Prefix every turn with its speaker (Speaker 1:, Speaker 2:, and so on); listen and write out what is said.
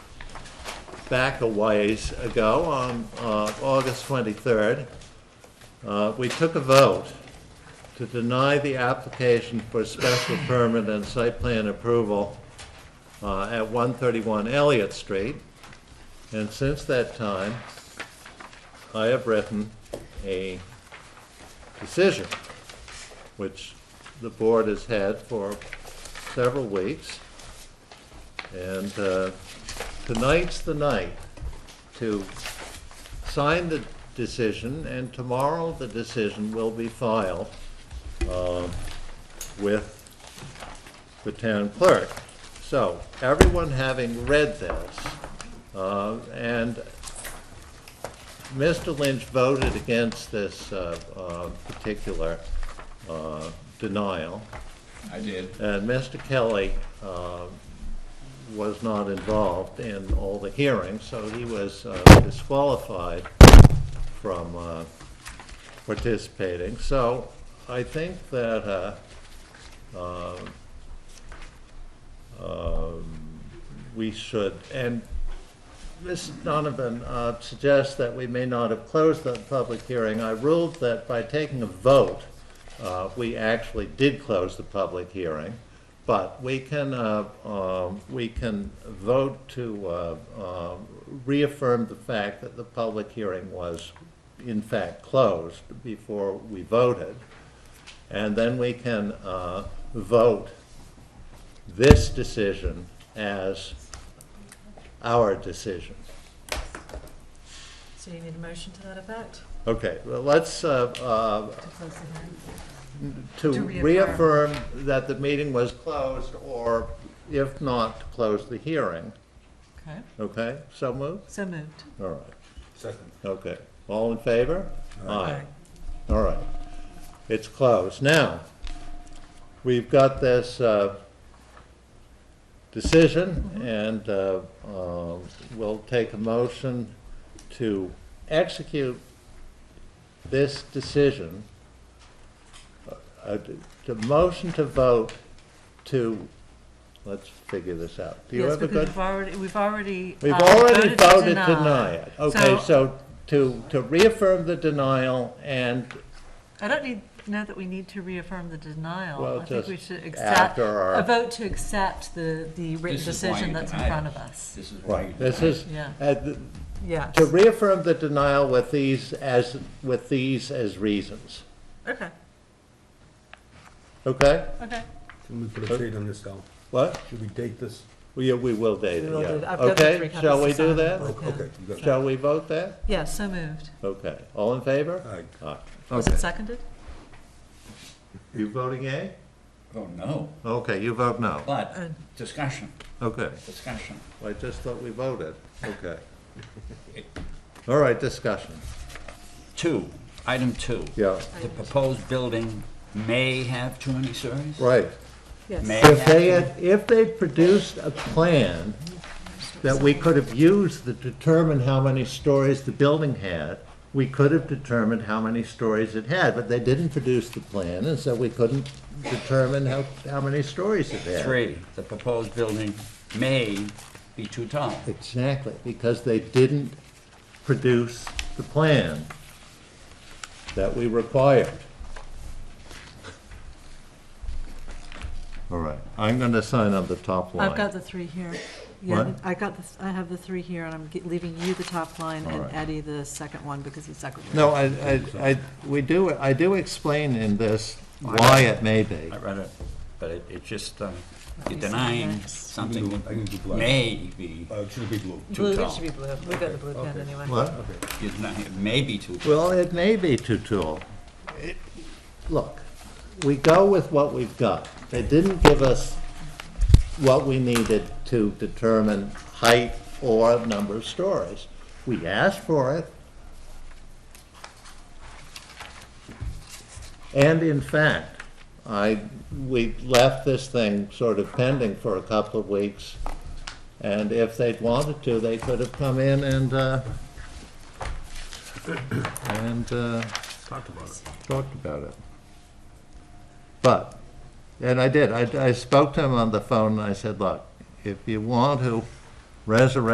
Speaker 1: back a ways ago, on uh, August 23rd, uh, we took a vote to deny the application for special permit and site plan approval uh, at 131 Elliott Street. And since that time, I have written a decision, which the board has had for several weeks. And uh, tonight's the night to sign the decision, and tomorrow the decision will be filed um, with the town clerk. So, everyone having read this, uh, and Mr. Lynch voted against this uh, uh, particular uh, denial,
Speaker 2: I did.
Speaker 1: and Mr. Kelly uh, was not involved in all the hearings, so he was uh, disqualified from uh, participating. So I think that um, uh, um, we should, and Ms. Donovan uh, suggests that we may not have closed the public hearing. I ruled that by taking a vote, uh, we actually did close the public hearing, but we can, uh, um, we can vote to uh, uh, reaffirm the fact that the public hearing was in fact closed before we voted. And then we can uh, vote this decision as our decision.
Speaker 3: So you need a motion to that effect?
Speaker 1: Okay, well, let's, uh,
Speaker 3: To close the hearing?
Speaker 1: uh, to
Speaker 3: To reaffirm.
Speaker 1: reaffirm that the meeting was closed, or if not, to close the hearing,
Speaker 3: Okay.
Speaker 1: okay? So moved?
Speaker 3: So moved.
Speaker 1: All right,
Speaker 2: Second.
Speaker 1: okay. All in favor? All right. It's closed. Now, we've got this uh, decision, and uh, uh, we'll take a motion to execute this decision. Uh, The motion to vote to, let's figure this out. Do you
Speaker 3: Yes,
Speaker 1: have a
Speaker 3: because
Speaker 1: good?
Speaker 3: we've already, we've already.
Speaker 1: We've
Speaker 3: uh,
Speaker 1: already voted
Speaker 3: deny.
Speaker 1: to deny it. Okay,
Speaker 3: So
Speaker 1: so to, to reaffirm the denial and
Speaker 3: I don't need, know that we need to reaffirm the denial.
Speaker 1: Well,
Speaker 3: I think we
Speaker 1: just
Speaker 3: should accept,
Speaker 1: after our-
Speaker 3: a vote to accept the, the written
Speaker 2: This is why you
Speaker 3: decision that's in
Speaker 2: denied
Speaker 3: front
Speaker 2: it.
Speaker 3: of us.
Speaker 2: This is why you
Speaker 1: Right, this is,
Speaker 3: Yeah.
Speaker 1: uh, th-
Speaker 3: Yes.
Speaker 1: to reaffirm the denial with these as, with these as reasons,
Speaker 3: Okay,
Speaker 1: okay?
Speaker 3: okay.
Speaker 4: Can we put a date on this, Al?
Speaker 1: What?
Speaker 4: Should we date this?
Speaker 1: We, uh, we will date
Speaker 3: We
Speaker 1: it,
Speaker 3: will do-
Speaker 1: yeah.
Speaker 3: I've got the
Speaker 1: Okay,
Speaker 3: three copies
Speaker 1: shall we
Speaker 3: to
Speaker 1: do
Speaker 3: sign.
Speaker 1: that?
Speaker 3: Yeah.
Speaker 4: Okay, you got it.
Speaker 1: Shall we vote that?
Speaker 3: Yeah, so moved.
Speaker 1: Okay, all in favor?
Speaker 4: Aye.
Speaker 1: Aye.
Speaker 3: Was it seconded?
Speaker 1: You voting yea?
Speaker 2: Oh, no,
Speaker 1: Okay, you vote no.
Speaker 2: but
Speaker 3: Uh,
Speaker 2: discussion,
Speaker 1: Okay,
Speaker 2: discussion.
Speaker 1: I just thought we voted, okay. All right, discussion,
Speaker 2: Two, item two.
Speaker 1: yeah,
Speaker 2: The proposed building may have too many stories?
Speaker 1: right.
Speaker 3: Yes.
Speaker 2: May
Speaker 1: If they,
Speaker 2: have,
Speaker 1: had- if they produced a plan that we could have used to determine how many stories the building had, we could have determined how many stories it had, but they didn't produce the plan, and so we couldn't determine how, how many stories it had.
Speaker 2: three, the proposed building may be too tall.
Speaker 1: Exactly, because they didn't produce the plan that we required. All right, I'm gonna sign on the top line.
Speaker 3: I've got the three here. Yeah,
Speaker 1: What?
Speaker 3: I got this, I have the three here and I'm ge- leaving you the top line and
Speaker 1: Alright.
Speaker 3: Eddie the second one because he's secretary.
Speaker 1: No, I, I, I, we do, I do explain in this why it may be.
Speaker 2: I read it, but it, it just, uh, you're
Speaker 3: see
Speaker 2: denying
Speaker 3: next.
Speaker 2: something
Speaker 4: I can do
Speaker 2: that
Speaker 4: black.
Speaker 2: may be,
Speaker 4: Uh, should be blue.
Speaker 2: Blue, it
Speaker 3: Blue,
Speaker 2: tall.
Speaker 3: it
Speaker 2: should
Speaker 3: should
Speaker 2: be
Speaker 3: be blue. We've got the blue pen anyway.
Speaker 1: What?
Speaker 2: you're denying, it may be too tall.
Speaker 1: Well, it may be too tall. It- Look, we go with what we've got. They didn't give us what we needed to determine height or number of stories. We asked for it. And in fact, I, we left this thing sort of pending for a couple of weeks. And if they'd wanted to, they could have come in and, uh, and uh,
Speaker 4: Talked about it.
Speaker 1: talked about it. But, and I did, I I spoke to him on the phone, and I said, look, if you want to resurrect